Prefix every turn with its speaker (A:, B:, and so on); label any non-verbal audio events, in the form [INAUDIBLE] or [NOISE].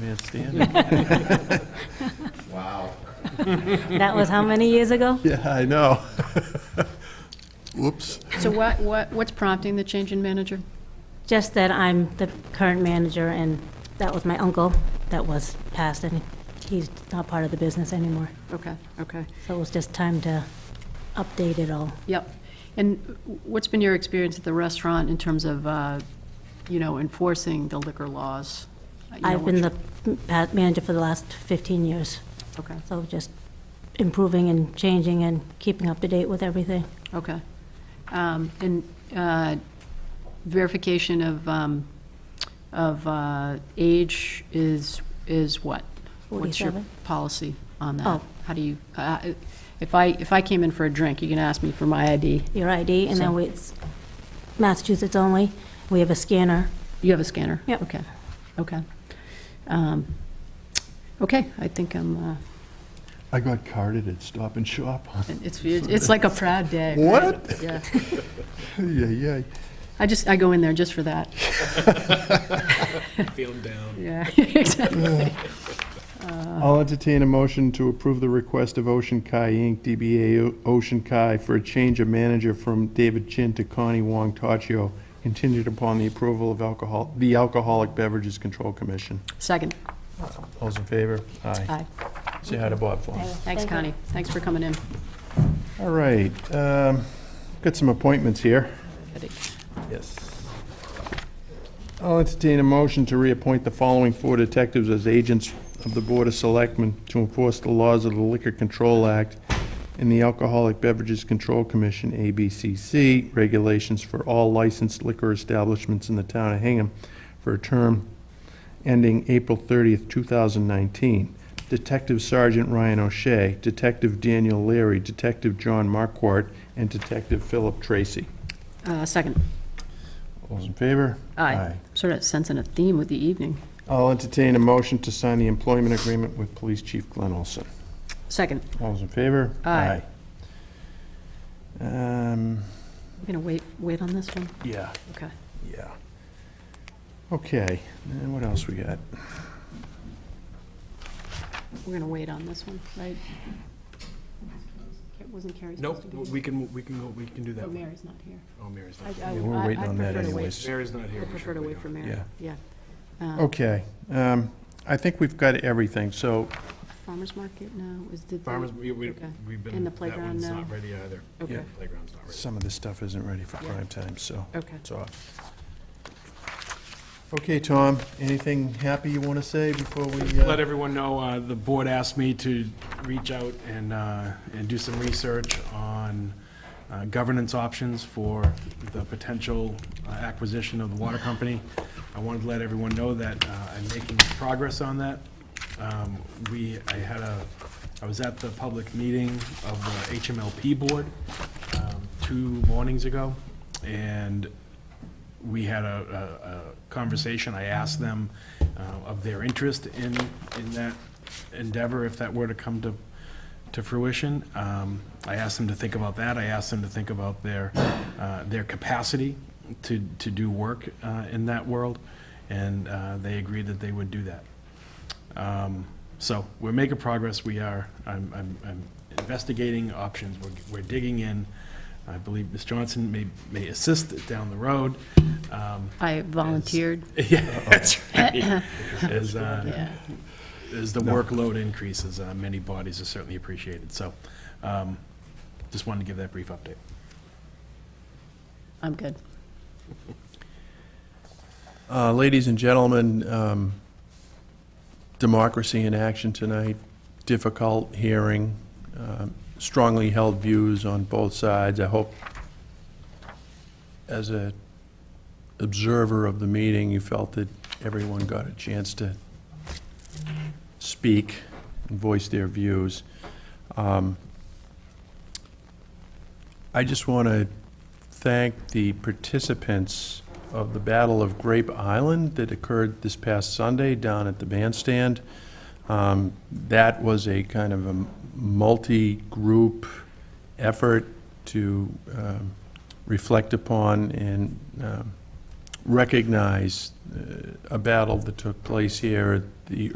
A: Man [LAUGHS] standing.
B: Wow.
C: That was how many years ago?
A: Yeah, I know. [LAUGHS] Whoops.
D: So what, what, what's prompting the change in manager?
C: Just that I'm the current manager, and that was my uncle that was passed, and he's not part of the business anymore.
D: Okay, okay,
C: So it was just time to update it all.
D: yep. And what's been your experience at the restaurant in terms of, uh, you know, enforcing the liquor laws? You know,
C: I've been the
D: what's-
C: pa- manager for the last 15 years,
D: Okay,
C: so just improving and changing and keeping up to date with everything.
D: okay. Um, And uh, verification of, um, of uh, age is, is what? What's your
C: 47.
D: policy on that?
C: Oh.
D: How do you, uh, if I, if I came in for a drink, you can ask me for my ID.
C: Your ID, and then
D: So-
C: we- it's Massachusetts only. We have a scanner.
D: You have a scanner?
C: Yep.
D: Okay, okay. Um, Okay, I think I'm, uh,
A: I got carded at Stop and Shop. [LAUGHS]
D: it's, it's like a proud day. right?
A: What?
D: Yeah,
A: Yeah, yeah.
D: I just, I go in there just for that.
E: [LAUGHS] Feel down.
D: Yeah, [LAUGHS] exactly.
A: I'll entertain a motion to approve the request of Ocean Kai Inc., DBA O- Ocean Kai, for a change of manager from David Chin to Connie Wong Taccio, contingent upon the approval of alcohol, the Alcoholic Beverages Control Commission.
D: Second,
A: All those in favor? Aye.
D: aye.
A: Say hi to Bob for us.
D: Thanks,
C: Thank you.
D: Connie. Thanks for coming in.
A: All right, um, got some appointments here. Yes. I'll entertain a motion to reappoint the following four detectives as agents of the Board of Selectmen to enforce the laws of the Liquor Control Act and the Alcoholic Beverages Control Commission, ABCC, regulations for all licensed liquor establishments in the town of Hingham for a term ending April 30th, 2019. Detective Sergeant Ryan O'Shea, Detective Daniel Leary, Detective John Marquardt, and Detective Philip Tracy.
D: Uh, Second,
A: All those in favor?
D: aye. Sort of sensing a theme with the evening.
A: I'll entertain a motion to sign the employment agreement with Police Chief Glenn Olson.
D: Second,
A: All those in favor?
D: Aye.
A: Aye. Um,
D: you gonna wait, wait on this one?
A: yeah,
D: Okay.
A: yeah. Okay, and what else we got?
D: We're gonna wait on this one, right? Wasn't Carrie supposed
E: Nope,
D: to be?
E: we can, we can go, we can do
D: Oh,
E: that one.
D: Mary's not here.
E: Oh, Mary's not.
D: I- I-
A: Yeah, we're
D: I-
A: waiting
D: I'd
A: on that
D: prefer to wait.
A: anyways.
E: Mary's not here.
D: I
E: we
D: prefer
E: should
D: to wait
E: on
D: for
E: it.
D: Mary,
A: Yeah.
D: yeah. Uh-huh.
A: Okay, um, I think we've got everything, so,
D: Farmers market now, is the.
E: Farmers, we, we-
D: Okay.
E: we've been,
D: And the
E: that
D: playground
E: one's
D: now?
E: not ready either.
D: Okay,
E: Playground's not ready.
A: some of this stuff isn't ready for
D: Yeah.
A: prime time, so
D: okay.
A: it's off. Okay, Tom, anything happy you want to say before we? uh,
E: Let everyone know, uh, the board asked me to reach out and, uh, and do some research on uh, governance options for the potential uh, acquisition of the water company. I wanted to let everyone know that uh, I'm making progress on that. Um, We, I had a, I was at the public meeting of the HMLP board um, two mornings ago, and we had a, a- a conversation, I asked them uh, of their interest in, in that endeavor, if that were to come to, to fruition. Um, I asked them to think about that, I asked them to think about their, uh, their capacity to, to do work uh, in that world, and uh, they agreed that they would do that. Um, So we're making progress, we are, I'm, I'm I'm investigating options, we're, we're digging in. I believe Ms. Johnson may, may assist down the road. Um, [LAUGHS]
D: I volunteered,
E: Yeah, that's right. As, uh,
D: yeah.
E: as the workload increases, uh, many bodies are certainly appreciated, so um, just wanted to give that brief update.
D: I'm good.
A: Uh, Ladies and gentlemen, um, democracy in action tonight, difficult hearing, um, strongly held views on both sides. I hope, as a observer of the meeting, you felt that everyone got a chance to speak and voice their views. Um, I just want to thank the participants of the Battle of Grape Island that occurred this past Sunday down at the bandstand. Um, That was a kind of a multi-group effort to um, reflect upon and um, recognize uh, a battle that took place here the